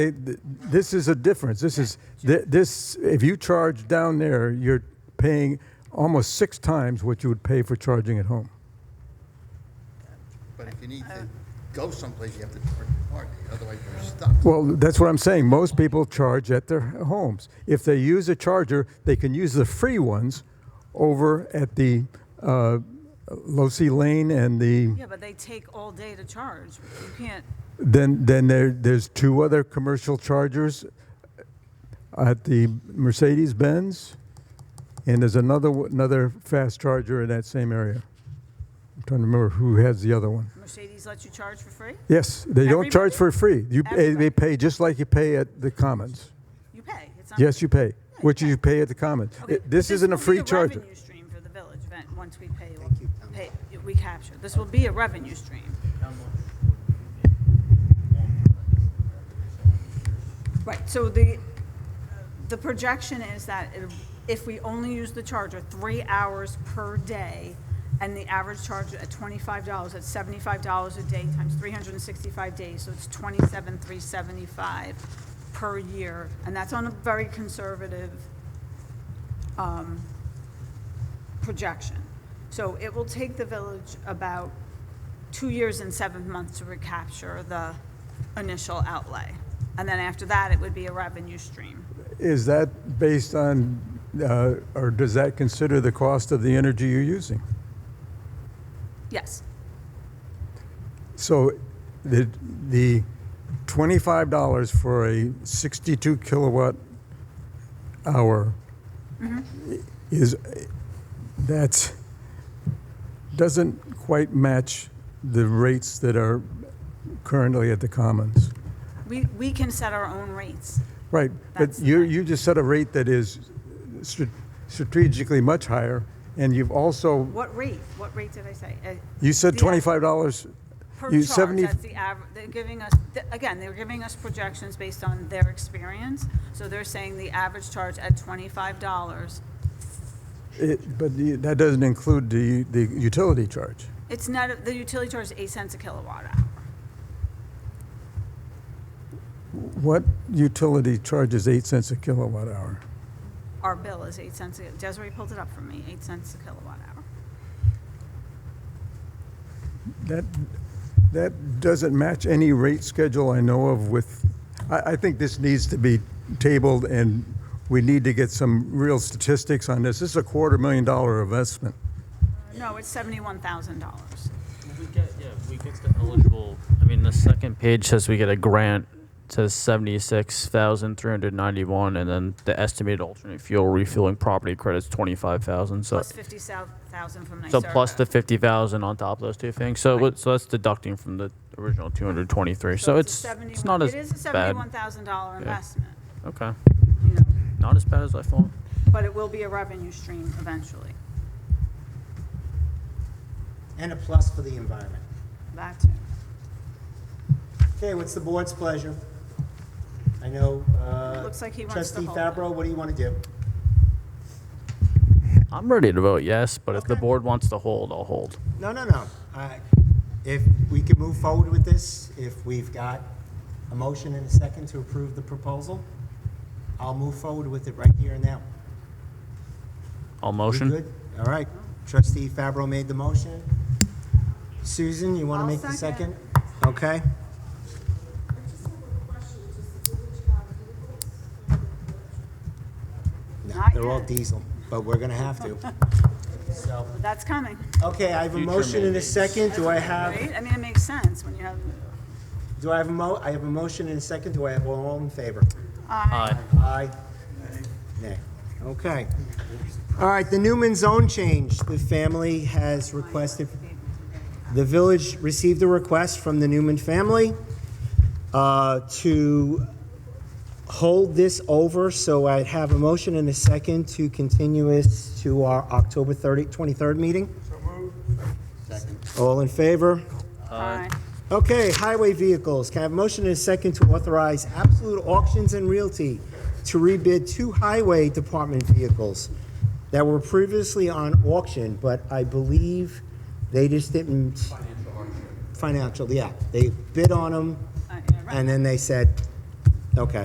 It- th- This is a difference. This is, th- this, if you charge down there, you're paying almost six times what you would pay for charging at home. But if you need to go someplace, you have to charge your card, otherwise you're stuck. Well, that's what I'm saying. Most people charge at their homes. If they use a charger, they can use the free ones over at the uh, Losi Lane and the, Yeah, but they take all day to charge. You can't, then, then there, there's two other commercial chargers at the Mercedes-Benz, and there's another, one- another fast charger in that same area. I'm trying to remember who has the other one. Mercedes lets you charge for free? Yes, they don't charge Everybody? for free. You, pay- they Everybody. pay just like you pay at the Commons. You pay. It's not- Yes, you pay, which you pay at the common. Okay, It- This isn't a will be free charger. revenue stream for the village, Ven- once we pay, pay, we capture. This will be a revenue stream. Right, so the, the projection is that it- if we only use the charger three hours per day, and the average charge at twenty-five dollars, that's seventy-five dollars a day times three hundred and sixty-five days, so it's twenty-seven, three seventy-five per year, and that's on a very conservative projection. So it will take the village about two years and seven months to recapture the initial outlay. And then after that, it would be a revenue stream. Is that based on, uh, or does that consider the cost of the energy you're using? Yes, So the, the twenty-five dollars for a sixty-two kilowatt hour Mm-hmm. is, that's, doesn't quite match the rates that are currently at the commons. we, we can set our own rates. Right, but That's the you, thing. you just set a rate that is stra- strategically much higher, and you've also, What rate, what rate did I say? Uh, you said the- twenty-five dollars. Per you charge, 70 that's the average, they're giving us, th- again, they're giving us projections based on their experience. So they're saying the average charge at twenty-five dollars it- But the- that doesn't include the, the utility charge. It's not, the utility charge is eight cents a kilowatt hour. What utility charges eight cents a kilowatt hour? Our bill is eight cents, a- Desiree pulled it up for me, eight cents a kilowatt hour. That, that doesn't match any rate schedule I know of with, I, I think this needs to be tabled, and we need to get some real statistics on this. This is a quarter million dollar investment. No, it's seventy-one thousand dollars. We get, yeah, we get the eligible, I mean, the second page says we get a grant, says seventy-six thousand three hundred ninety-one, and then the estimated alternate fuel refueling property credits twenty-five thousand, so. Plus uh, fifty thousand from NYSERDA. So plus the fifty thousand on top of those two things, so what, so that's deducting from the original two hundred twenty-three, so it's, it's not as It is a bad. seventy-one thousand dollar investment, Okay, you know, not as bad as I thought. but it will be a revenue stream eventually, And a plus for the environment. that too. Okay, what's the board's pleasure? I know, uh, Looks like he wants to trustee hold it. Fabro, what do you want to do? I'm ready to vote yes, but if the Okay. board wants to hold, I'll hold. No, no, no. I- If we can move forward with this, if we've got a motion and a second to approve the proposal, I'll move forward with it right here and now. I'll We motion, good? All right. Trustee Fabro made the motion. Susan, you want to I'll make the second. second? Okay. No, Not they're all yet. diesel, but we're going to have to. So, But that's coming, okay, I have a motion and a second. Do I have, right? I mean, it makes sense when you have, do I have a mo, I have a motion and a second. Do I have all in favor? aye. Aye. Nay. Okay. All right, the Newman zone change, the family has requested, the village received a request from the Newman family uh, to hold this over, so I'd have a motion and a second to continue this to our October 30, 23rd meeting. All in favor? Uh, aye. Okay, highway vehicles. Can I have a motion and a second to authorize Absolute Auctions and Realty to rebid two highway department vehicles that were previously on auction, but I believe they just didn't. Financial, yeah. They bid on them Uh, yeah, right. and then they said, Okay.